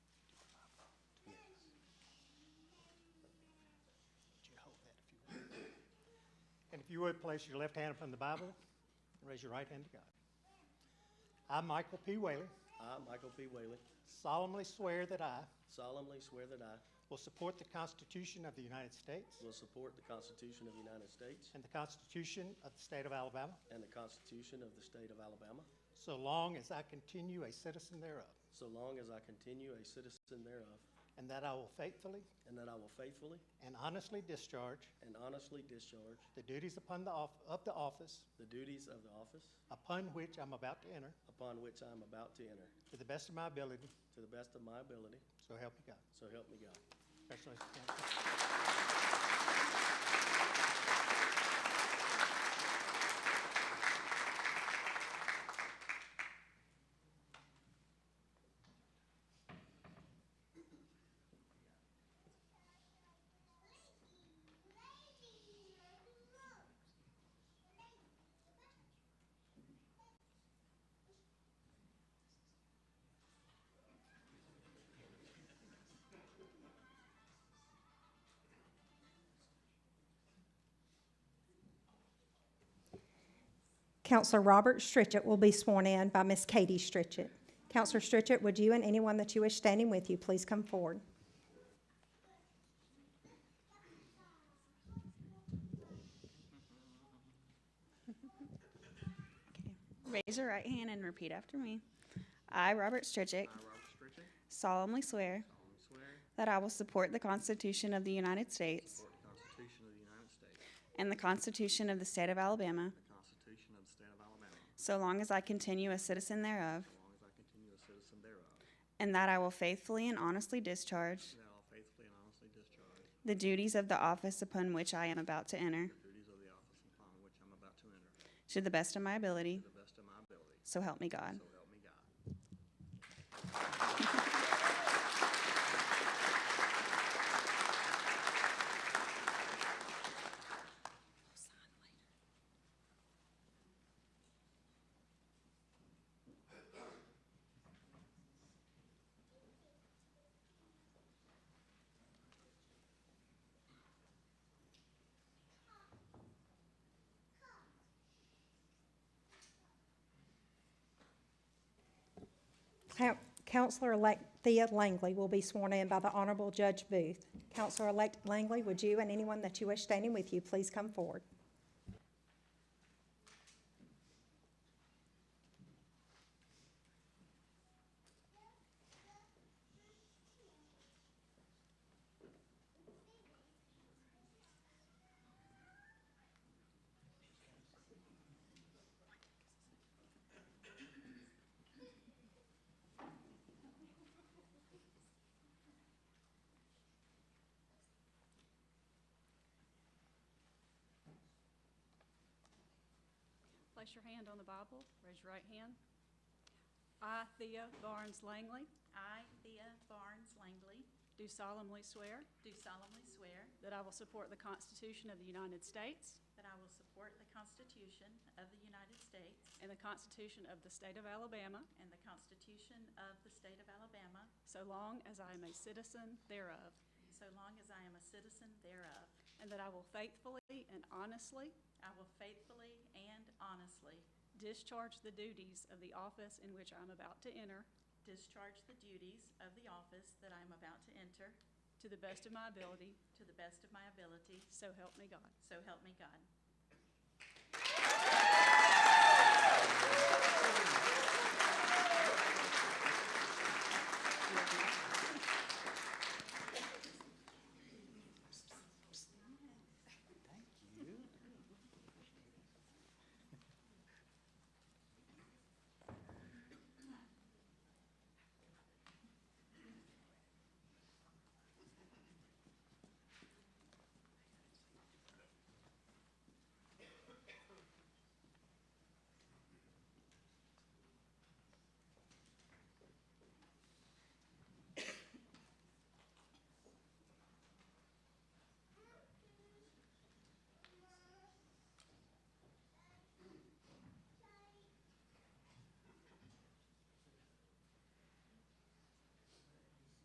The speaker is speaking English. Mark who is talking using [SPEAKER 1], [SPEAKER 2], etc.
[SPEAKER 1] you would, place your left hand upon the Bible and raise your right hand to God. I, Michael P. Whaley,
[SPEAKER 2] I, Michael P. Whalen,
[SPEAKER 1] solemnly swear that I
[SPEAKER 2] solemnly swear that I
[SPEAKER 1] will support the Constitution of the United States
[SPEAKER 2] will support the Constitution of the United States
[SPEAKER 1] and the Constitution of the State of Alabama
[SPEAKER 2] and the Constitution of the State of Alabama,
[SPEAKER 1] so long as I continue a citizen thereof,
[SPEAKER 2] so long as I continue a citizen thereof,
[SPEAKER 1] and that I will faithfully
[SPEAKER 2] and that I will faithfully
[SPEAKER 1] and honestly discharge
[SPEAKER 2] and honestly discharge
[SPEAKER 1] the duties upon the off- of the office
[SPEAKER 2] the duties of the office
[SPEAKER 1] upon which I'm about to enter
[SPEAKER 2] upon which I am about to enter,
[SPEAKER 1] to the best of my ability,
[SPEAKER 2] to the best of my ability,
[SPEAKER 1] so help me God.
[SPEAKER 2] so help me God.
[SPEAKER 1] Congratulations.
[SPEAKER 3] Counselor Robert Stritchett will be sworn in by Miss Katie Stritchett. Counselor Stritchett, would you and anyone that you wish standing with you please come forward?
[SPEAKER 4] Raise your right hand and repeat after me. I, Robert Strichick,
[SPEAKER 5] I, Robert Stritchett,
[SPEAKER 4] solemnly swear
[SPEAKER 5] solemnly swear
[SPEAKER 4] that I will support the Constitution of the United States
[SPEAKER 5] support the Constitution of the United States,
[SPEAKER 4] and the Constitution of the State of Alabama,
[SPEAKER 5] the Constitution of the State of Alabama,
[SPEAKER 4] so long as I continue a citizen thereof,
[SPEAKER 5] so long as I continue a citizen thereof,
[SPEAKER 4] and that I will faithfully and honestly discharge
[SPEAKER 5] and that I will faithfully and honestly discharge
[SPEAKER 4] the duties of the office upon which I am about to enter,
[SPEAKER 5] the duties of the office upon which I'm about to enter, to
[SPEAKER 4] to the best of my ability,
[SPEAKER 5] the best of my ability,
[SPEAKER 4] so help me God.
[SPEAKER 5] so help me God.
[SPEAKER 3] Coun- Counselor-elect Thea Langley will be sworn in by the Honorable Judge Booth. Counselor-elect Langley, would you and anyone that you wish standing with you please come forward?
[SPEAKER 6] Place your hand on the Bible, raise your right hand. I, Thea Barnes Langley,
[SPEAKER 7] I, Thea Barnes Langley,
[SPEAKER 6] do solemnly swear
[SPEAKER 7] do solemnly swear
[SPEAKER 6] that I will support the Constitution of the United States
[SPEAKER 7] that I will support the Constitution of the United States
[SPEAKER 6] and the Constitution of the State of Alabama,
[SPEAKER 7] and the Constitution of the State of Alabama,
[SPEAKER 6] so long as I am a citizen thereof,
[SPEAKER 7] so long as I am a citizen thereof.
[SPEAKER 6] and that I will faithfully and honestly
[SPEAKER 7] I will faithfully and honestly
[SPEAKER 6] discharge the duties of the office in which I'm about to enter
[SPEAKER 7] discharge the duties of the office that I am about to enter
[SPEAKER 6] to the best of my ability,
[SPEAKER 7] to the best of my ability,
[SPEAKER 6] so help me God.
[SPEAKER 7] so help me God.